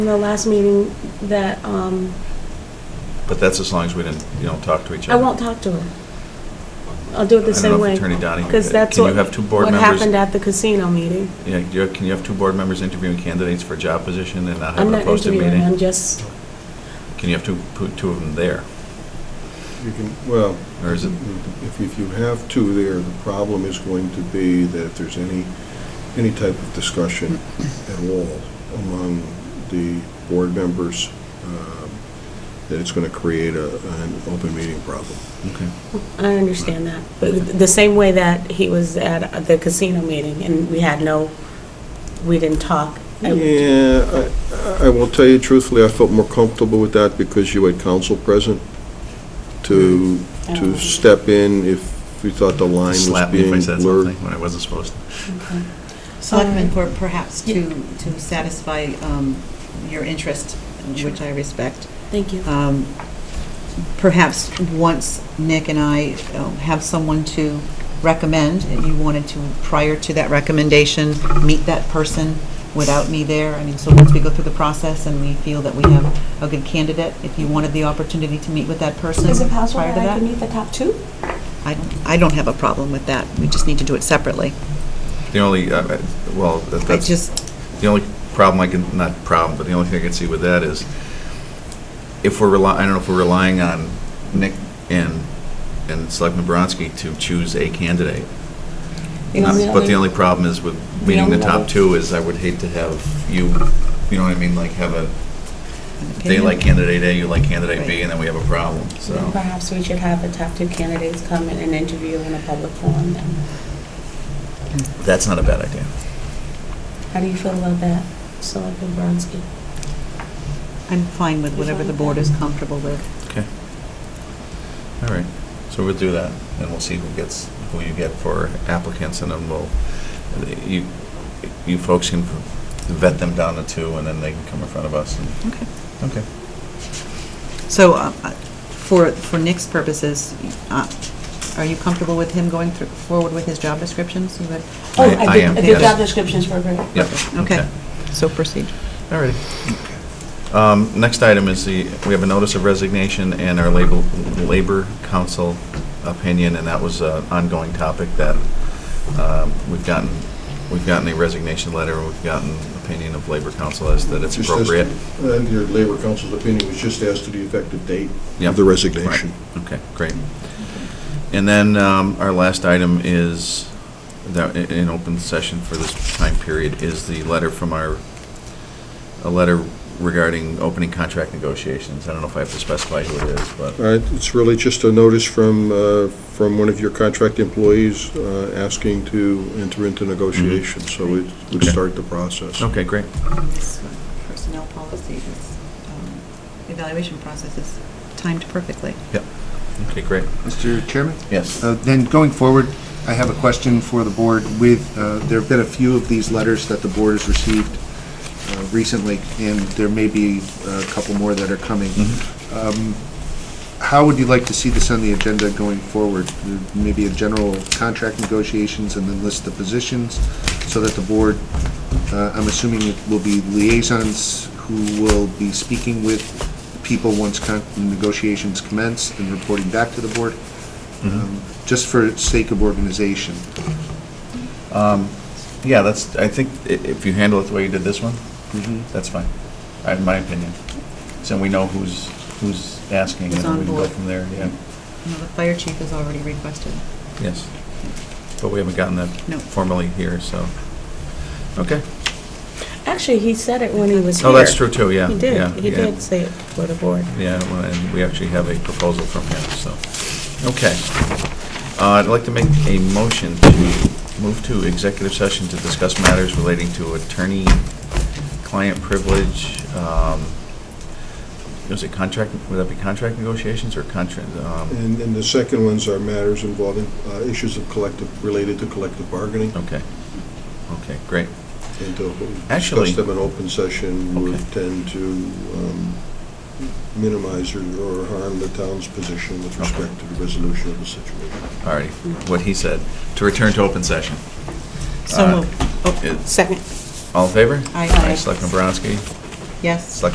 in the last meeting that, um, But that's as long as we didn't, you don't talk to each I other. won't talk to her. I'll do it the I don't same know if way. Attorney Donahue Because did. that's Can you what, have two board what members- happened at the casino meeting. Yeah, do you- can you have two board members interviewing candidates for a job position and not I'm having a not posted interviewing, I'm meeting? just, Can you have two, put two of them there? You can, well, Or is it- if, if you have two there, the problem is going to be that if there's any, any type of discussion at all among the board members, um, that it's going to create a, an open meeting problem. Okay. I understand that. But the same way that he was at the casino meeting and we had no, we didn't talk. I- Yeah, I, I will tell you truthfully, I felt more comfortable with that because you had counsel present to, to Oh. step in if we thought the line was Slap me if I being said blurred. something when I wasn't supposed to. Okay. Selectmen, Um, All for perhaps to, to satisfy um, your interest, which I respect, Thank you. um, perhaps once Nick and I um, have someone to recommend, and you wanted to, prior to that recommendation, meet that person without me there, I mean, so once we go through the process and we feel that we have a good candidate, if you wanted the opportunity to meet with that person prior Is to it possible that I that? can meet the top two? I don't, I don't have a problem with that, we just need to do it separately. The only, uh, uh, well, that- I that's, just, the only problem I can, not problem, but the only thing I can see with that is if we're relying, I don't know if we're relying on Nick and, and Selectman Bronski to choose a candidate. You know, Um, the But only- the only problem is with meeting the only top other- two is I would hate to have you, you know what I mean, like have a, they opinion. like candidate A, you like candidate B, Right. and then we have a problem, so. Perhaps we should have the top two candidates come in and interview in a public forum then. That's not a bad idea. How do you feel about that, Selectman Bronski? I'm fine with whatever the board is comfortable with. Okay. All right, so we'll do that, and we'll see who gets, who you get for applicants, and then we'll, you, you folks can vet them down to two, and then they can come in front of us, and, Okay. okay. So, uh, uh, for, for Nick's purposes, uh, are you comfortable with him going through, forward with his job descriptions? You would- Oh, I- I did- am, The yes. job descriptions were great. Yep. Okay, so proceed. All righty. Um, Next item is the, we have a notice of resignation and our labor, labor council opinion, and that was an ongoing topic that um, we've gotten, we've gotten a resignation letter, we've gotten opinion of labor council as that it's Just as to- appropriate. And your labor council's opinion was just as to the effective date Yep. of the resignation. Right. Okay, great. And then um, our last item is, that i- in open session for this time period, is the letter from our, a letter regarding opening contract negotiations. I don't know if I have to specify who it is, but, All right, it's really just a notice from, uh, from one of your contract employees uh, asking to enter into negotiations, so it would Mm-hmm. Okay. start the process. okay, great. Personnel policy is, um, evaluation process is timed perfectly. Yep. Okay, great. Mr. Chairman? Yes. Uh, Then going forward, I have a question for the board with, uh, there have been a few of these letters that the board has received uh, recently, and there may be uh, a couple more that are coming. Mm-hmm. Mm-hmm. Um, How would you like to see this on the agenda going forward? Maybe a general contract negotiations and then list the positions so that the board, uh, I'm assuming it will be liaisons who will be speaking with people once con- negotiations commence and reporting back to the board? um, just for sake of organization. Yeah, that's, I think i- if you handle it the way you did this one, Mm-hmm. that's fine, I- in my opinion. So we know who's, who's asking, Who's and then on we can go board. from there, yeah. No, the fire chief has already requested. Yes. But we haven't gotten that No. formally here, so, okay. Actually, he said it when he was here. Oh, that's true too, yeah. He yeah, did, he yeah. did say it for the board. Yeah, well, and we actually have a proposal from him, so, okay. Uh, I'd like to make a motion to move to executive session to discuss matters relating to attorney-client privilege. um, Was it contract, would that be contract negotiations or um, contract? And then the second ones are matters involving uh, issues of collective, related to collective bargaining. Okay, okay, great. And to Actually- discuss them in open session would Okay. tend to um, minimize or or harm the town's position with Okay. respect to the resolution of the situation. All righty, what he said, to return to open session. So Uh, moved. Oh. it- Second. All in favor? Aye. Aye, Selectman Bronski. Yes. Select